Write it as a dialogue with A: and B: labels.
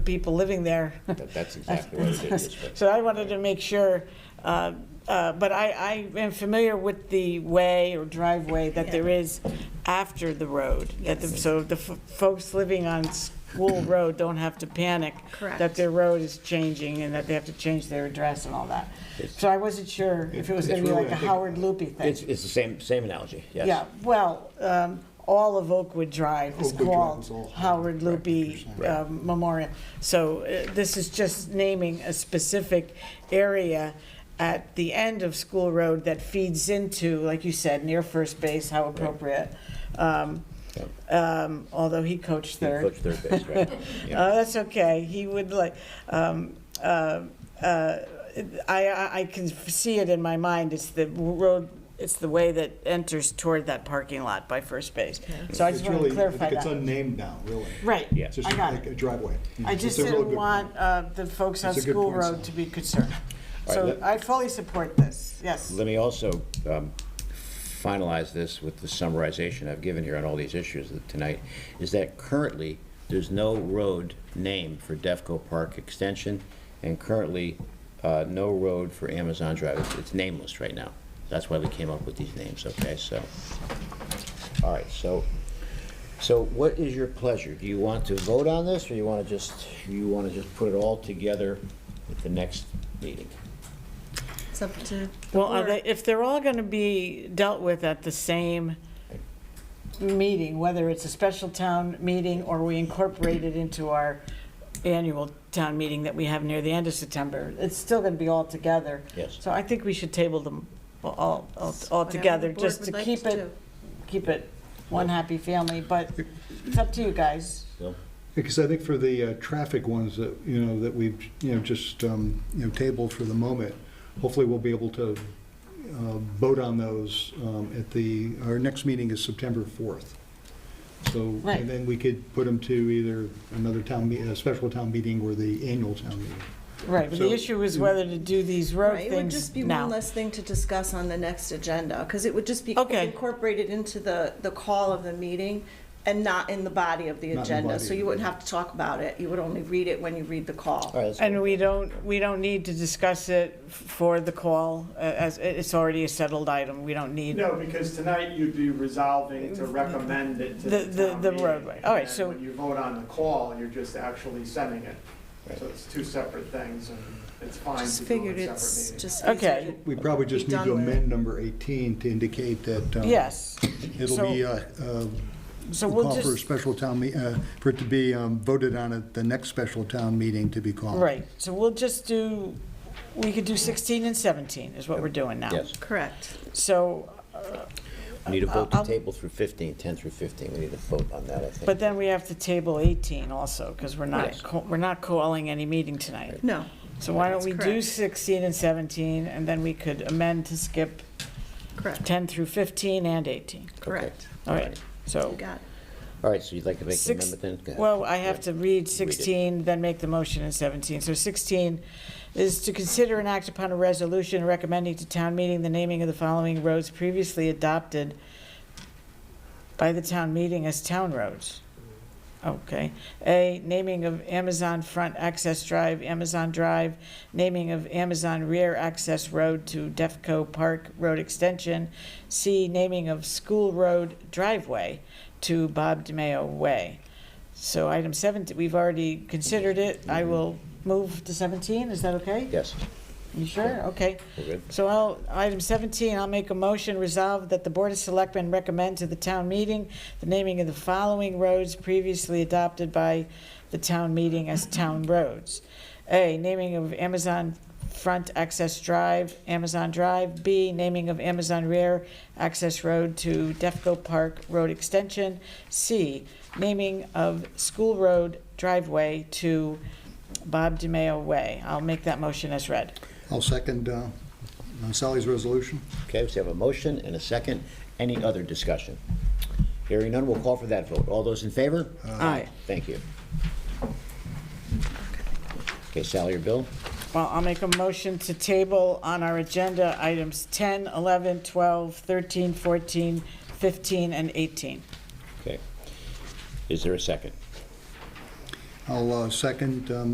A: people living there.
B: That- That's exactly what it is. but-
A: So I wanted to make sure, uh, uh, but I, I am familiar with the way or driveway that there is after the road. That the- So the f- folks living on School Road don't have to panic. That
C: Correct.
A: their road is changing and that they have to change their address and all that. So I wasn't sure if it was going to be
B: It's really-
A: like a Howard Loopy thing.
D: It's, it's the same, same analogy, yes.
A: Yeah, well, um, all of Oakwood Drive is
E: Oakwood Drive is
A: called
E: all-
A: Howard Loopy um, Memorial. So uh, this is just naming a specific area at the end of School Road that feeds into, like you said, near first base, how appropriate. Um, um, Although he coached third.
D: Coach third base, right. Yeah.
A: Oh, that's okay. He would like, um, uh, uh, I, I- I can see it in my mind. It's the road, it's the way that enters toward that parking lot by first base. So I
E: It's
A: just want to
E: really, I
A: clarify
E: think it's
A: that.
E: unnamed now, really.
A: Right.
D: Yeah.
E: It's just
A: I got
E: like a
A: it.
E: driveway.
A: I
E: It's
A: just
E: a real
A: didn't
E: good
A: want uh, the folks on
E: It's a good
A: School
E: point,
A: Road
E: Sally.
A: to be concerned.
D: All right,
A: So
D: let-
A: I fully support this, yes.
D: Let me also um, finalize this with the summarization I've given here on all these issues that- tonight, is that currently, there's no road name for Defco Park Extension, and currently, uh, no road for Amazon Drive. It's- It's nameless right now. That's why we came up with these names, okay? So, all right, so, so what is your pleasure? Do you want to vote on this, or you want to just, you want to just put it all together at the next meeting?
C: It's up to. the
A: Well, are
C: board.
A: they, if they're all going to be dealt with at the same meeting, whether it's a special town meeting or we incorporate it into our annual town meeting that we have near the end of September, it's still going to be all together.
D: Yes.
A: So I think we should table them all, all, all
C: Whatever the
A: together,
C: board
A: just
C: would
A: to
C: like
A: keep
C: do.
A: it, keep it one happy family, but it's up to you guys.
D: Bill?
E: Because I think for the uh, traffic ones that, you know, that we've, you know, just, um, you know, tabled for the moment, hopefully we'll be able to uh, vote on those um, at the, our next meeting is September 4th. So,
A: Right.
E: and then we could put them to either another town, me- a special town meeting or the annual town meeting.
A: Right, but the
E: So-
A: issue is whether to do these road
C: Right,
A: things
C: it
A: now.
C: would just be one less thing to discuss on the next agenda, because it would just be
A: Okay.
C: incorporated into the, the call of the meeting and not in the body of the
E: Not in the
C: agenda,
E: body
C: so
E: of
C: you
E: the- Uh,
C: wouldn't have to talk about it, you would only read it when you read the
D: All
C: call.
D: right, let's go.
A: And we don't, we don't need to discuss it for the call, uh, as it's already a settled item, we don't need.
F: No, because tonight you'd be resolving to recommend it to
A: The- the-
F: the town
A: the
F: meeting.
A: roadway. All right,
F: And
A: so-
F: when you vote on the call, you're just actually sending it. So it's two separate things, and it's fine
C: Just
F: to do
C: figured
F: it in
C: it's
F: separate meetings.
C: just.
A: Okay.
C: easier to-
E: We probably just
C: Be
E: need to
C: done with.
E: amend number 18 to indicate that. um,
A: Yes,
E: It'll
A: So-
E: be, uh, uh,
A: so
E: we'll
A: we'll
E: call for a
A: just,
E: special town, me- uh, for it to be um, voted on at the next special town meeting to be called.
A: right, so we'll just do, we could do 16 and 17 is what we're doing now.
D: Yes.
C: Correct.
A: So, Um,
D: We need a vote to
A: I'll-
D: table through 15, 10 through 15. We need a vote on that, I think.
A: but then we have to table 18 also, because we're not,
D: Yes.
A: ca- we're not calling any meeting tonight.
C: No,
A: So why don't
C: That's
A: we do
C: correct.
A: 16 and 17, and then we could amend to skip
C: correct,
A: 10 through 15 and 18.
C: correct.
A: All right, so.
E: Oh.
C: You got it.
D: All right, so you'd like to make an
A: Six-
D: amendment then? Go ahead.
A: Well, I have to read
D: it.
A: 16, then make the motion in 17. So 16 is to consider and act upon a resolution recommending to town meeting the naming of the following roads previously adopted by the town meeting as town roads. Okay. A, naming of Amazon Front Access Drive, Amazon Drive, naming of Amazon Rear Access Road to Defco Park Road Extension. C, naming of School Road Driveway to Bob DiMeo Way. So item 17, we've already considered it. I will move to 17, is that okay?
D: Yes,
A: You sure? Okay.
D: we're good.
A: So I'll, item 17, I'll make a motion resolved that the Board of Selectmen recommend to the town meeting the naming of the following roads previously adopted by the town meeting as town roads. A, naming of Amazon Front Access Drive, Amazon Drive. B, naming of Amazon Rear Access Road to Defco Park Road Extension. C, naming of School Road Driveway to Bob DiMeo Way. I'll make that motion as read.
E: I'll second uh, Sally's resolution.
D: Okay, so we have a motion and a second. Any other discussion? Hearing none, we'll call for that vote. All those in favor?
A: Aye.
D: Thank you. Okay, Sally or Bill?
A: Well, I'll make a motion to table on our agenda items 10, 11, 12, 13, 14, 15, and 18.
D: Okay. Is there a second?
E: I'll I'll uh, second um,